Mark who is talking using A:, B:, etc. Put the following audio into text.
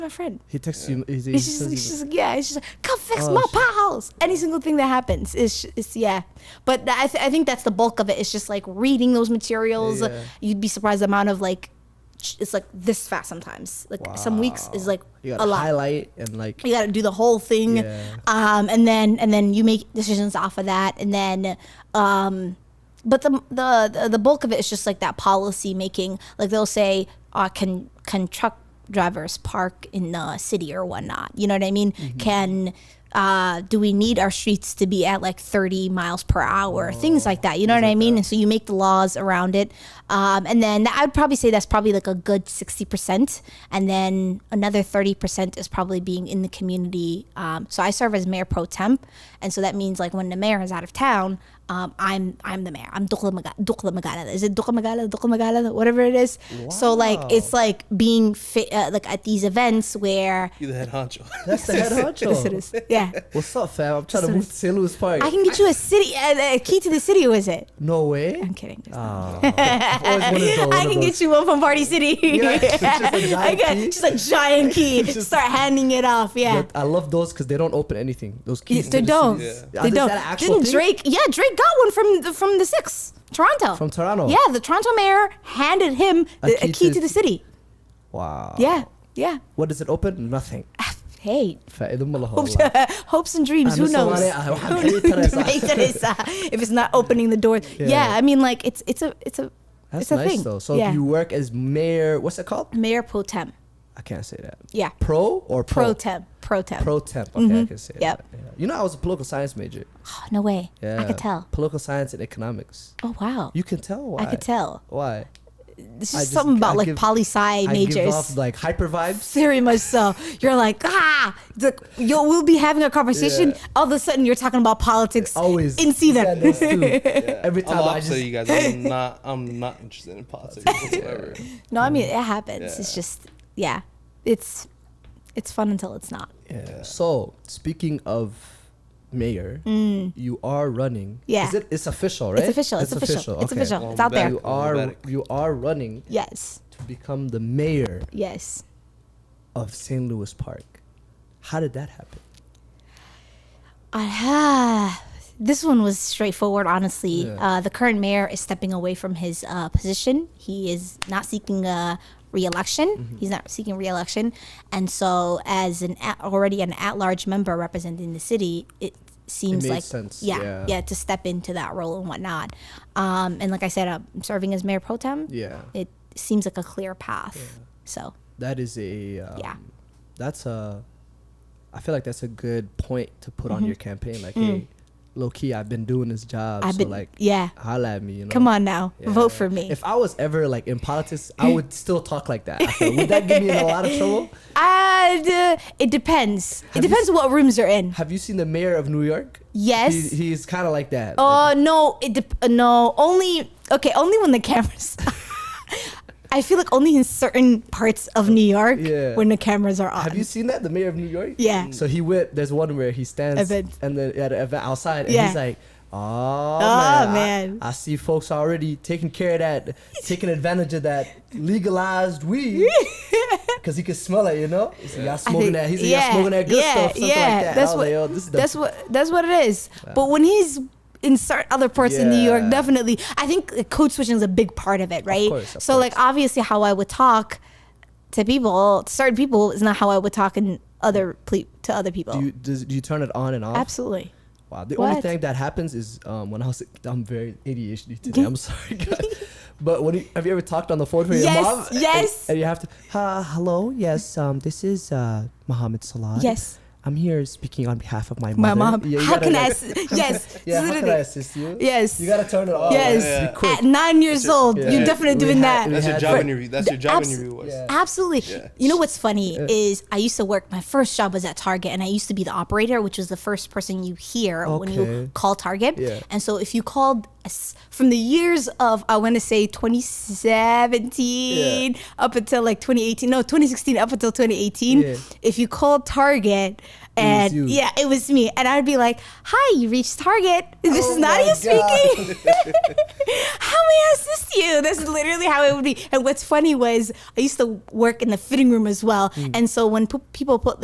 A: my friend.
B: He texts you. He, he
A: It's just,
B: says
A: it's
B: you-
A: just yeah, it's just like, come fix
B: Oh,
A: my
B: shit.
A: potholes. Any single thing that happens is, is yeah. But that, I, th- I think that's the bulk of it. It's just like reading those materials.
B: Yeah.
A: You'd be surprised the amount of like, ch- it's like this fast sometimes. Like some weeks is
B: Wow.
A: like
B: you
A: a
B: gotta
A: lot.
B: highlight and like
A: You got to do the whole thing,
B: Yeah.
A: um, and then and then you make decisions off of that, and then. Um, but the, the the- the bulk of it is just like that policy making. Like they'll say, uh, can can truck drivers park in the city or whatnot? You know what I mean? Can uh, do we need our streets to be at like 30 miles per hour? things like that. You know what I mean? And so you make the laws around it, um, and then I would probably say that's probably like a good 60 percent, and then another 30 percent is probably being in the community. Um, so I serve as mayor pro temp, and so that means like when the mayor is out of town, um, I'm I'm the mayor. I'm Dukla Maga- Dukla Magala. Is it Dukla Magala? Dukla Magala? Whatever it is. So like
B: Wow.
A: it's like being fit uh, like at these events where
C: You the head honcho.
B: that's the head
A: Yes, it
B: honcho.
A: is. yeah.
B: What's up, fam? I'm trying to move to St. Louis Park.
A: I can get you a city uh, a, a key to the city. Was it?
B: no way.
A: I'm kidding. There's not.
B: Oh, I've always wanted to
A: I can get you one from Party City.
B: Yeah, it's just a giant
A: I got
B: key.
A: just a giant key. Start handing it off. Yeah.
B: But I love those because they don't open anything. Those
A: Yeah,
B: keys.
A: they
B: just-
A: don't.
C: Yeah.
B: Are
A: They
B: these-
A: don't.
B: that an actual
A: Didn't
B: thing?
A: Drake? Yeah, Drake got one from the, from the six Toronto.
B: From Toronto?
A: Yeah, the Toronto mayor handed him
B: A
A: the, a
B: key
A: key
B: to-
A: to
B: Oh.
A: the city.
B: Wow.
A: Yeah, yeah.
B: What does it open? Nothing.
A: Hey,
B: فإذا الله
A: hopes,
B: والله.
A: hopes and dreams.
B: أهلا
A: Who
B: وسهلا
A: knows?
B: عليها.
A: Who
B: ah, Hey,
A: knows?
B: Teresa.
A: Hey, Teresa. if it's not opening the door, yeah.
B: Yeah.
A: I mean, like it's it's a it's a
B: That's
A: it's a
B: nice
A: thing.
B: though. So
A: yeah.
B: you work as mayor. What's it called?
A: mayor pro tem.
B: I can't say that.
A: Yeah.
B: Pro or pro?
A: Pro tem. Pro tem.
B: Pro temp. Okay, I can say
A: Yep.
B: that. Yeah. You know, I was a political science major.
A: Oh, no way.
B: Yeah.
A: I could tell.
B: Political science and economics.
A: Oh wow.
B: You can tell why.
A: I could tell.
B: Why?
A: This
B: I
A: is
B: just-
A: something about
B: I
A: like
B: give-
A: poli sci majors.
B: I give off like hyper vibes.
A: very much so. You're like, ah, the, you we'll be having a conversation.
B: Yeah.
A: All of a sudden, you're talking about politics
B: Always.
A: in
B: Yeah,
A: season.
B: that's true. Every
C: I'm
B: time I
C: off
B: just.
C: so you guys. I'm not. I'm not interested in politics whatsoever.
A: no, I mean it happens. It's
C: Yeah.
A: just, yeah, it's it's fun until it's not.
B: Yeah. So speaking of mayor, you are
A: Mm.
B: running.
A: Yeah.
B: Is it? It's official, right?
A: It's official. It's, official. It's
B: okay.
A: official.
C: Well,
A: It's out there.
B: You
C: Back.
B: are
C: Back.
B: you are running
A: Yes.
B: to become the mayor
A: Yes.
B: of St. Louis Park. How did that happen?
A: Uh, this one was straightforward, honestly.
B: Yeah.
A: Uh, the current mayor is stepping away from his uh, position. He is not seeking a re-election.
B: Mm-hmm.
A: He's not seeking re-election, and so as an at, already an at-large member representing the city, it seems
B: made
A: like
B: sense,
A: yeah,
B: yeah.
A: yeah, to step into that role and whatnot. Um, and like I said, I'm serving as mayor pro tem.
B: Yeah.
A: It seems like a clear path. So
B: That is a um,
A: Yeah.
B: That's a. I feel like that's a good point to put
A: Mm-hmm.
B: on your campaign. Like, hey, low key, I've been doing this job.
A: Mm. I've
B: Oh, so
A: been
B: like,
A: yeah.
B: holla at me. You know.
A: Come on now,
B: Yeah.
A: vote for me.
B: If I was ever like in politics, I would still talk like that. I feel. Would that give me in a lot of trouble?
A: And, uh, it depends.
B: Have
A: it
B: you
A: depends what rooms you're in.
B: Have you seen the mayor of New York?
A: Yes.
B: He, he's kind of like that.
A: Uh, no, it dep- uh, no, only okay, only when the cameras. I feel like only in certain parts of New York
B: Yeah.
A: when the cameras are on.
B: have you seen that? The mayor of New York?
A: Yeah.
B: So he went, there's one where he stands
A: Event.
B: and then at an event outside and
A: Yeah.
B: he's like, Oh,
A: Oh,
B: man, I-
A: man.
B: I, see folks already taking care of that, taking advantage of that legalized weed. Because he could smell it, you know? He's like, y'all
A: I
B: smoking
A: think-
B: that. He's like, y'all smoking that good stuff. Something like that.
A: That's
B: I was
A: what.
B: like, "Yo, this is the
A: that's what. That's what it is. But when he's in certain other parts of New York,
B: Yeah.
A: definitely, I think the code switching is a big part of it, right?
B: course, of
A: so, like, obviously, how I would talk to people, to certain people, is not how I would talk in other ple- to other people.
B: Do you, does, do you turn it on and off?
A: Absolutely.
B: Wow. The only
A: What?
B: thing that happens is um, when I was I'm very ADHD today. I'm sorry, guys. But when you, have you ever talked on the phone with your
A: Yes,
B: mom? And-
A: yes.
B: And, you have to. Uh, hello. Yes. Um. This is uh Mohammed Salah.
A: Yes.
B: I'm here speaking on behalf of my
A: My
B: mother.
A: mom.
B: Yeah, you
A: how
B: gotta,
A: can I?
B: like-
A: Ass- yes.
B: Yeah. How can I oh,
A: literally.
B: assist you?
A: Yes.
B: You gotta turn it off.
A: Yes.
B: Be
C: Yeah.
B: quick.
A: At nine years old,
B: yeah.
A: you're definitely
B: We
A: doing
B: had-
A: that.
C: That's your
B: had-
C: job
B: But
C: interview. That's
A: the
C: your job
A: abs-
C: interview. Was.
B: Yeah.
A: Absolutely.
C: Yeah.
A: You know what's funny is I used to work. My first job was at Target, and I used to be the operator, which was the first person you hear when
B: Okay.
A: you call Target.
B: Yeah.
A: And so if you called s- from the years of I want to say 2017 up until like 2018, no 2016 up until 2018.
B: Yeah.
A: If you called Target and
B: you.
A: yeah, it was me, and I'd be like, "Hi, you reached Target. This
B: Oh
A: is
B: my
A: Nadia
B: God.
A: speaking. how may I assist you?" That's literally how
B: Hmm.
A: it would be. And what's funny was I used to work in the fitting room as well, and so when p- people put